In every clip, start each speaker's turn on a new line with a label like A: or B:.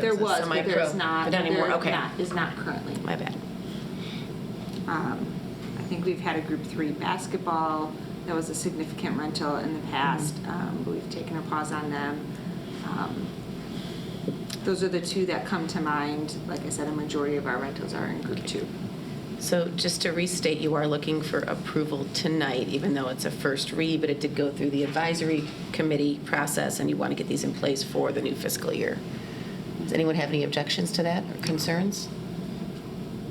A: There
B: It's a
A: was, but there
B: semi-pro,
A: is not.
B: but not anymore,
A: there
B: okay.
A: not- Is not currently.
B: My bad.
A: Um, I think we've had a Group Three basketball, that was a significant rental in the past, um, but we've taken a pause on them. Um, Those are the two that come to mind. Like I said, a majority of our rentals are in Group Two.
B: So just to restate, you are looking for approval tonight, even though it's a first read, but it did go through the advisory committee process, and you want to get these in place for the new fiscal year. Does anyone have any objections to that or concerns?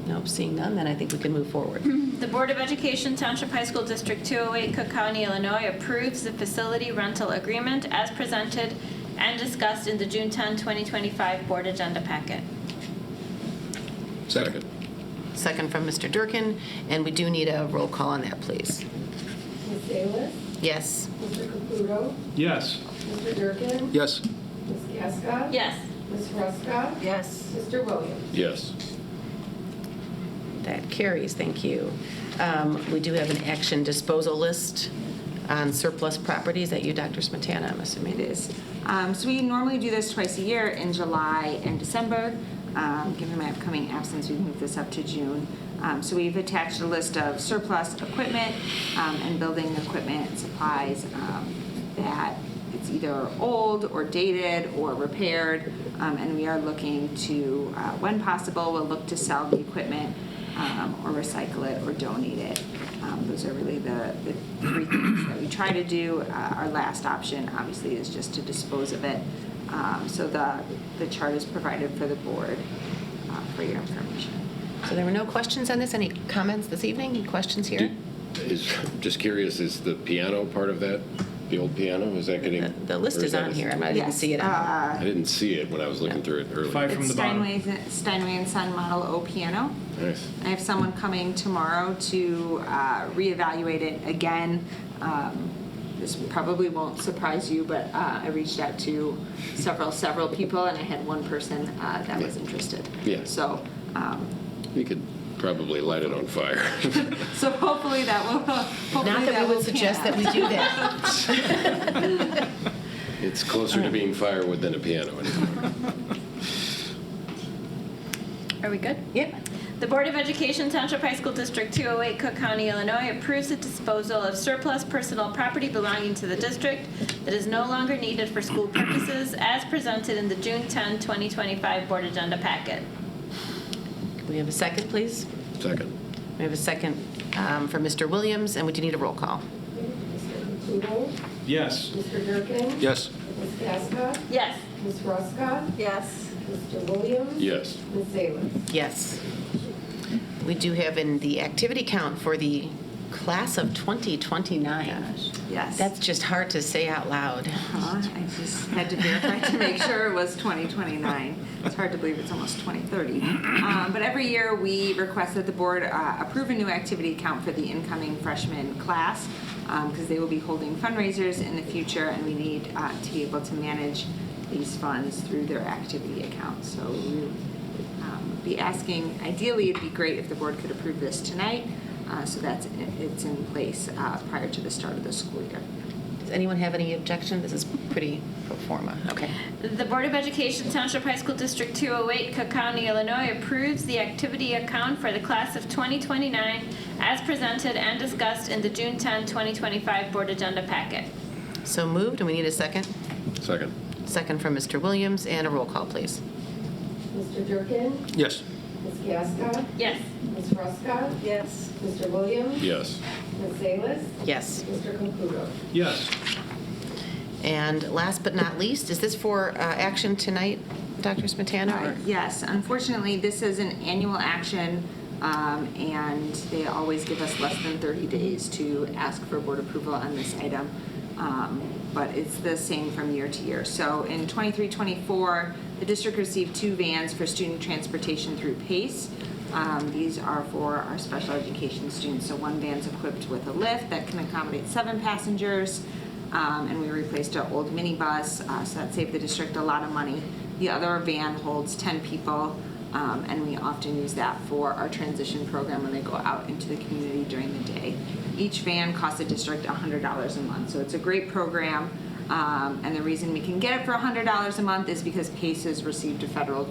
B: Nope, seeing none, then I think we can move forward.
C: The Board of Education Township High School District 208, Cook County, Illinois approves the facility rental agreement as presented and discussed in the June 10, 2025 Board Agenda Packet.
D: Second.
B: Second from Mr. Durkin, and we do need a roll call on that, please.
E: Ms. Salas,
B: Yes?
E: Mr. Caputo,
F: Yes.
E: Mr. Durkin,
D: Yes.
E: Ms. Gaska.
C: Yes.
E: Ms. Ruska.
B: Yes.
E: Mr. Williams.
D: Yes.
B: That carries, thank you. Um, We do have an action disposal list on surplus properties that you, Dr. Smetana, I'm assuming.
A: It is. Um, So we normally do this twice a year in July and December. Um, Given my upcoming absence, we've moved this up to June. Um, So we've attached a list of surplus equipment um, and building equipment, supplies um, that it's either old or dated or repaired. Um, And we are looking to, uh, when possible, we'll look to sell the equipment um, or recycle it or donate it. Um, Those are really the the three things that we try to do. Uh, Our last option, obviously, is just to dispose of it. Um, So the, the chart is provided for the board uh, for your information.
B: So there were no questions on this? Any comments this evening? Any questions here?
D: Is, just curious, is the piano part of that, the old piano, is that getting?
B: The the list
D: or
B: is on
D: that-
B: here. I'm not- I didn't
A: Yes, uh,
B: see it. on
D: I didn't see it when I was looking through it
F: Five
D: earlier.
F: from
A: It's
F: the bottom.
A: Steinway, Steinway and Son Model O piano.
D: Nice.
A: I have someone coming tomorrow to uh, reevaluate it again. Um, This probably won't surprise you, but uh, I reached out to several, several people, and I had one person uh, that was interested.
D: Yeah.
A: So, um,
D: You could probably light it on fire.
A: so hopefully that will, hopefully that will
B: Not that we would suggest
A: pan
B: that
A: out.
B: we do that.
D: It's closer to being firewood than a piano anymore.
C: Are we good?
B: Yep.
C: The Board of Education Township High School District 208, Cook County, Illinois approves the disposal of surplus personal property belonging to the district that is no longer needed for school purposes as presented in the June 10, 2025 Board Agenda Packet.
B: Can we have a second, please?
D: Second.
B: We have a second um, for Mr. Williams, and we do need a roll call.
E: Mr. Caputo,
F: Yes.
E: Mr. Durkin.
D: Yes.
E: Ms. Gaska.
C: Yes.
E: Ms. Ruska.
C: Yes.
E: Mr. Williams.
D: Yes.
E: Ms. Salas.
B: Yes. We do have in the activity count for the class of 2029.
A: Yes.
B: That's just hard to say out loud.
A: Huh? Uh-huh, I just had to verify to make sure it was 2029. It's hard to believe it's almost 2030. Um, But every year, we request that the board uh, approve a new activity account for the incoming freshman class because they will be holding fundraisers in the future, and we need uh, to be able to manage these funds through their activity account. So we um, be asking, ideally, it'd be great if the board could approve this tonight, uh, so that's, it's in place uh, prior to the start of the school year.
B: Does anyone have any objection? This is pretty pro forma. Okay.
C: The Board of Education Township High School District 208, Cook County, Illinois approves the activity account for the class of 2029 as presented and discussed in the June 10, 2025 Board Agenda Packet.
B: So moved, and we need a second.
D: Second.
B: Second from Mr. Williams, and a roll call, please.
E: Mr. Durkin.
D: Yes.
E: Ms. Gaska.
C: Yes.
E: Ms. Ruska.
C: Yes.
E: Mr. Williams.
D: Yes.
E: Ms. Salas.
B: Yes.
E: Mr. Caputo.
F: Yes.
B: And last but not least, is this for uh, action tonight, Dr. Smetana?
A: Uh,
B: or-
A: Yes, unfortunately, this is an annual action, um, and they always give us less than 30 days to ask for board approval on this item, Um, but it's the same from year to year. So in 23, 24, the district received two vans for student transportation through PACE. Um, These are for our special education students, so one van's equipped with a lift that can accommodate seven passengers, um, and we replaced an old minibus, uh, so that saved the district a lot of money. The other van holds 10 people, um, and we often use that for our transition program when they go out into the community during the day. Each van costs the district $100 a month, so it's a great program. Um, And the reason we can get it for $100 a month is because Pace has received a federal